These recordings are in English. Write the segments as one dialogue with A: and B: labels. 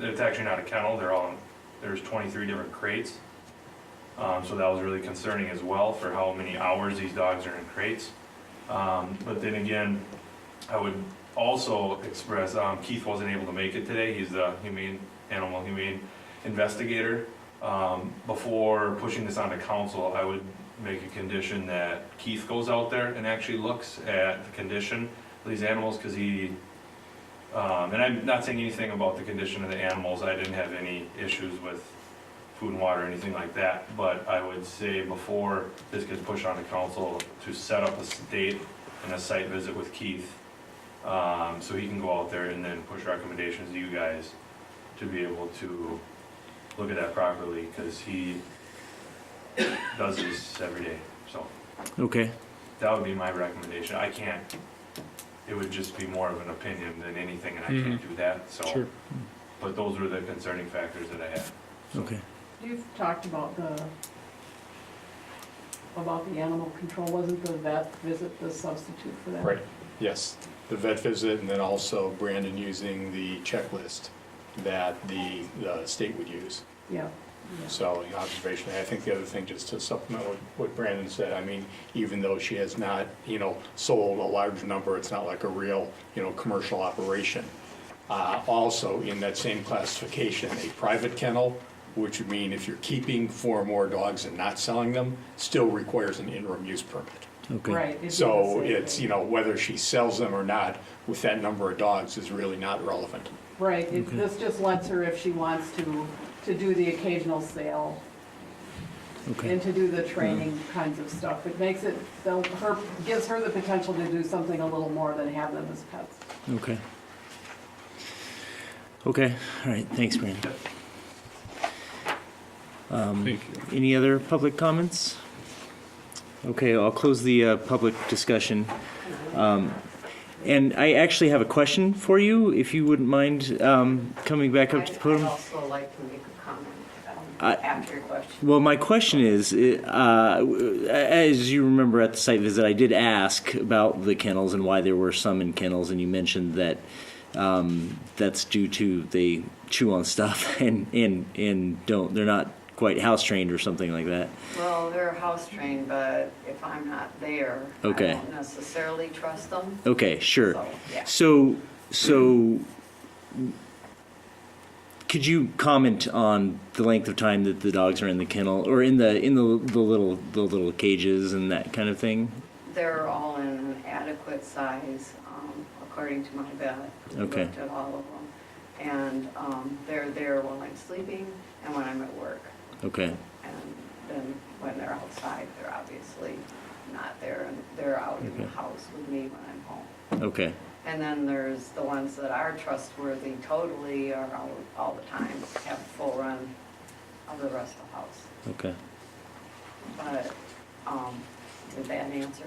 A: It's actually not a kennel, they're all, there's twenty-three different crates. Um, so that was really concerning as well for how many hours these dogs are in crates. Um, but then again, I would also express, um, Keith wasn't able to make it today, he's the humane, animal humane investigator. Um, before pushing this onto council, I would make a condition that Keith goes out there and actually looks at the condition of these animals, cause he um, and I'm not saying anything about the condition of the animals, I didn't have any issues with food and water or anything like that, but I would say before this gets pushed on to council, to set up a s- date and a site visit with Keith, um, so he can go out there and then push recommendations to you guys to be able to look at that properly, because he does this every day, so.
B: Okay,
A: That would be my recommendation. I can't, it would just be more of an opinion than anything, and I can't do that, so.
B: Sure.
A: But those were the concerning factors that I had.
B: okay.
C: You've talked about the, about the animal control, wasn't the vet visit the substitute for that?
D: Right, yes. The vet visit and then also Brandon using the checklist that the, the state would use.
C: Yeah. yeah.
D: So the observation, I think the other thing, just to supplement what, what Brandon said, I mean, even though she has not, you know, sold a large number, it's not like a real, you know, commercial operation. Uh, also in that same classification, a private kennel, which would mean if you're keeping four or more dogs and not selling them, still requires an interim use permit.
B: Okay.
C: Right. it
D: So
C: didn't say
D: it's,
C: that.
D: you know, whether she sells them or not, with that number of dogs is really not relevant.
C: Right, it-
B: Okay.
C: this just lets her, if she wants to, to do the occasional sale
B: Okay. Mm-hmm.
C: and to do the training kinds of stuff. It makes it, so her, gives her the potential to do something a little more than have them as pets.
B: Okay. Okay, all right, thanks, Brandon. Um, any other public comments? Okay, I'll close the, uh, public discussion. Um, and I actually have a question for you, if you wouldn't mind, um, coming back up to the
E: I'd- I'd
B: podium.
E: also like to make a comment
B: I-
E: um, after your question.
B: Well, my question is, uh, as you remember at the site visit, I did ask about the kennels and why there were some in kennels, and you mentioned that um, that's due to they chew on stuff and and and don't they're not quite house trained or something like that.
E: Well, they're house trained, but if I'm not there, I
B: Okay.
E: don't necessarily trust them.
B: Okay, sure.
E: So, yeah.
B: So, so could you comment on the length of time that the dogs are in the kennel or in the in the, the little the little cages and that kind of thing?
E: They're all in an adequate size, um, according to my vet. who
B: Okay.
E: Looked at all of them. And um, they're there while I'm sleeping and when I'm at work.
B: Okay.
E: And then when they're outside, they're obviously not there, and they're out in the
B: Okay.
E: house with me when I'm home.
B: Okay.
E: And then there's the ones that are trustworthy totally or all, all the time, have a full run of the rest of the house.
B: Okay.
E: But, um, did that answer?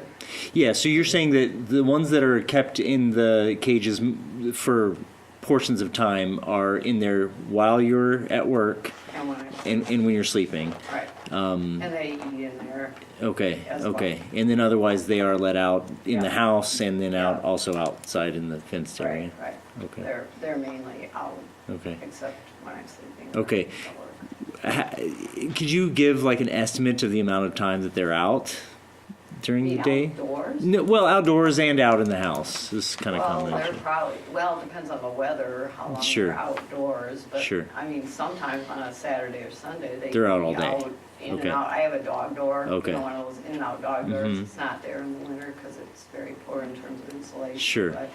B: Yeah. So you're saying that the ones that are kept in the cages m- for portions of time are in there while you're at work
E: And when I,
B: and, and when you're sleeping.
E: right,
B: Um,
E: and they eat in there,
B: okay.
E: As well.
B: Okay. And then otherwise they are let out in the
E: Yeah.
B: house and then out
E: Yeah.
B: also outside in the fenced area.
E: right, right.
B: Okay.
E: They're, they're mainly out,
B: Okay.
E: except when I'm sleeping.
B: Okay.
E: At work.
B: Ha- could you give like an estimate of the amount of time that they're out during the,
E: Be
B: day?
E: Outdoors.
B: No, well, outdoors and out in the house is kind of common.
E: Well, they're probably, well, it depends on the weather, how long
B: Sure.
E: they're outdoors, but,
B: Sure.
E: I mean, sometimes on a Saturday or Sunday, they.
B: They're out
E: can be
B: all day.
E: out, In and
B: Okay.
E: out, I have a dog door, you
B: Okay.
E: know, one of those in and out dog doors,
B: Mhm.
E: it's not there in the winter, because it's very poor in terms of insulation.
B: Sure.
E: But,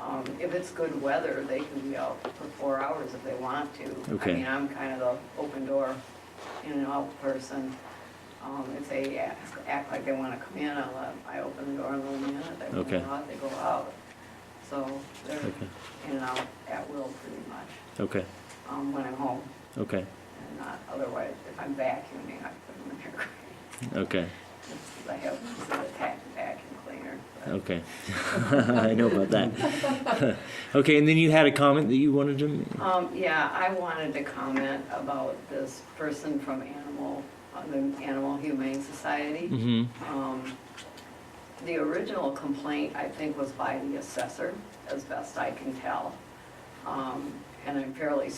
E: um, if it's good weather, they can be out for four hours if they want to.
B: Okay.
E: I mean, I'm kind of the open door, in and out person, um, if they ask, act like they wanna come in, I'll, let 'em- I open the door and let them in, if they
B: Okay.
E: wanna go out, they go out. So they're
B: Okay.
E: in and out at will pretty much,
B: okay.
E: um, when I'm home.
B: Okay.
E: And not, otherwise, if I'm vacuuming, I put them in here.
B: Okay.
E: I have this little tack vacuum cleaner. but-
B: Okay. I know about that. okay, and then you had a comment that you wanted to. m-
E: Um, yeah, I wanted to comment about this person from Animal, uh, the Animal Humane Society.
B: Mhm.
E: Um, The original complaint, I think, was by the assessor, as best I can tell. Um, And I'm fairly